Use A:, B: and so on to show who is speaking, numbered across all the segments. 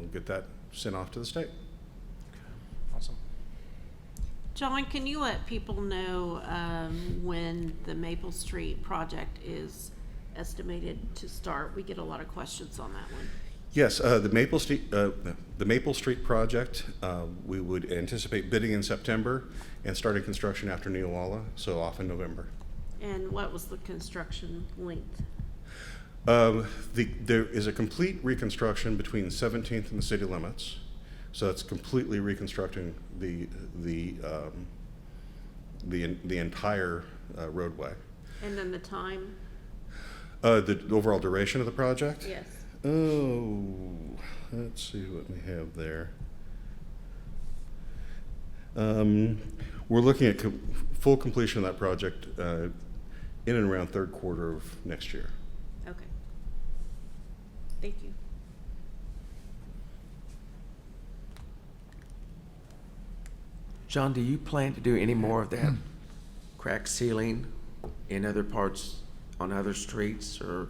A: We'll get that sent off to the state.
B: Awesome.
C: John, can you let people know um, when the Maple Street project is estimated to start? We get a lot of questions on that one.
A: Yes, uh, the Maple Street, uh, the Maple Street project, uh, we would anticipate bidding in September and starting construction after Neowalla, so off in November.
C: And what was the construction length?
A: Um, the, there is a complete reconstruction between 17th and the city limits, so that's completely reconstructing the the um, the the entire uh, roadway.
C: And then the time?
A: Uh, the overall duration of the project.
C: Yes.
A: Oh, let's see what we have there. Um, we're looking at com- full completion of that project uh, in and around third quarter of next year.
C: Okay. Thank you.
B: John, do you plan to do any more of that crack sealing in other parts, on other streets or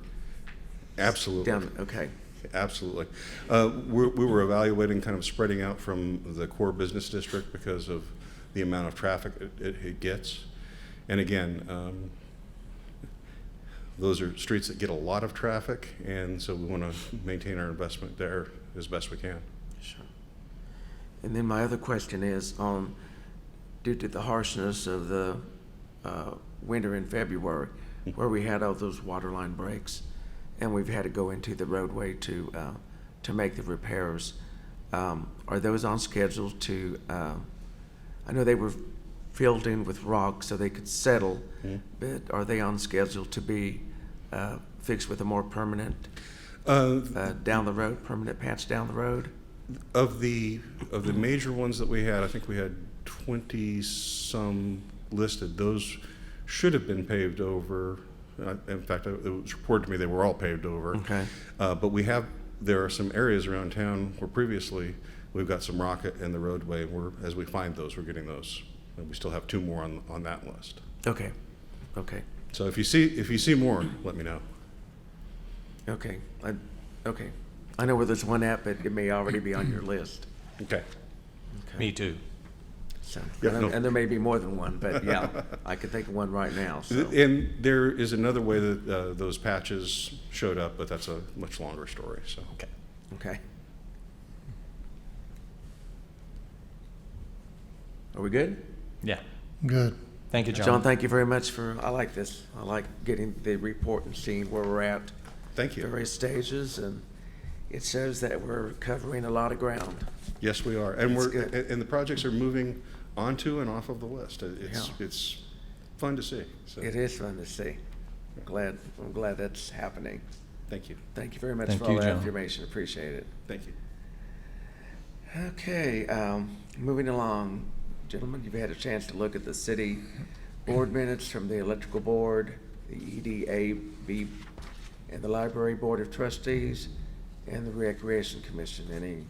A: Absolutely.
B: down? Okay.
A: Absolutely. Uh, we're, we were evaluating kind of spreading out from the core business district because of the amount of traffic it, it, it gets. And again, um, those are streets that get a lot of traffic, and so we want to maintain our investment there as best we can.
B: Sure. And then my other question is, um, due to the harshness of the, uh, winter in February, where we had all those water line breaks, and we've had to go into the roadway to, uh, to make the repairs, um, are those on schedule to, uh, I know they were filled in with rock so they could settle, but are they on schedule to be, uh, fixed with a more permanent,
A: Uh,
B: uh, down the road, permanent patch down the road?
A: of the of the major ones that we had, I think we had twenty some listed. Those should have been paved over. Uh, in fact, it was reported to me they were all paved over.
B: Okay.
A: Uh, but we have there are some areas around town where previously we've got some rocket in the roadway. We're as we find those, we're getting those. And we still have two more on on that list.
B: Okay, okay,
A: So if you see if you see more, let me know.
B: okay, I, okay. I know where there's one at, but it may already be on your list.
A: Okay.
D: Me too.
B: So,
A: Yeah,
B: and
A: no.
B: and there may be more than one, but yeah, I could think of one right now, so.
A: And there is another way that uh, those patches showed up, but that's a much longer story. So.
D: Okay.
B: Okay. Are we good?
D: Yeah.
E: Good.
D: Thank you, John.
B: John, thank you very much for, I like this. I like getting the report and seeing where we're at,
A: Thank you.
B: various stages, and it shows that we're covering a lot of ground.
A: Yes, we are. And
B: That's
A: we're,
B: good.
A: and and the projects are moving onto and off of the list. It- It's,
B: Yeah.
A: it's fun to see. So,
B: It is fun to see. Glad, I'm glad that's happening.
A: thank you.
B: Thank you very much
D: Thank
B: for all
D: you,
B: that
D: John.
B: information. Appreciate it.
A: Thank you.
B: Okay, um, moving along, gentlemen, you've had a chance to look at the city board minutes from the electrical board, the E EDAB, and the library board of trustees, and the recreation commission. Any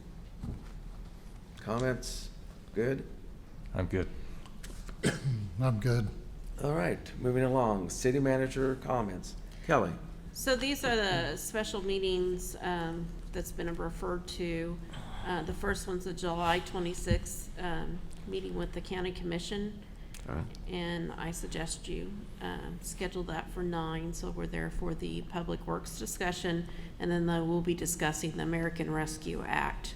B: comments? Good?
D: I'm good.
E: I'm good.
B: All right, moving along, city manager comments. Kelly?
C: So these are the special meetings um, that's been referred to. Uh, The first one's the July 26th um, meeting with the county commission. And I suggest you um, schedule that for nine, so we're there for the Public Works discussion. And then uh, we'll be discussing the American Rescue Act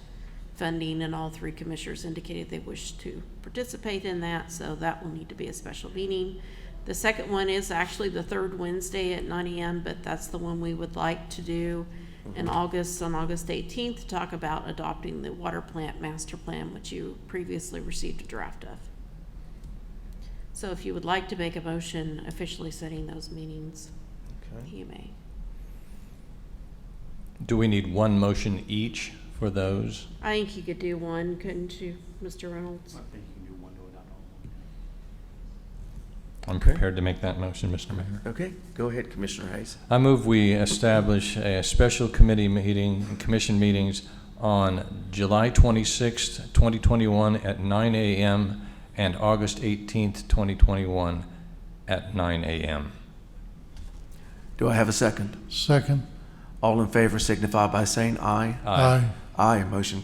C: funding, and all three commissioners indicated they wish to participate in that, so that will need to be a special meeting. The second one is actually the third Wednesday at nine AM, but that's the one we would like to do in August, on August eighteenth, to talk about adopting the water plant master plan, which you previously received a draft of. So if you would like to make a motion officially setting those meetings, you may.
D: Do we need one motion each for those?
C: I think you could do one, couldn't you, Mr. Reynolds?
D: I'm prepared to make that motion, Mr. Mayor.
B: Okay, go ahead, Commissioner Hayes.
D: I move we establish a special committee meeting, and commission meetings on July 26th, 2021 at 9 a.m. and August 18th, 2021 at 9 a.m.
B: Do I have a second?
E: Second.
B: All in favor signify by saying aye.
E: Aye.
B: Aye, motion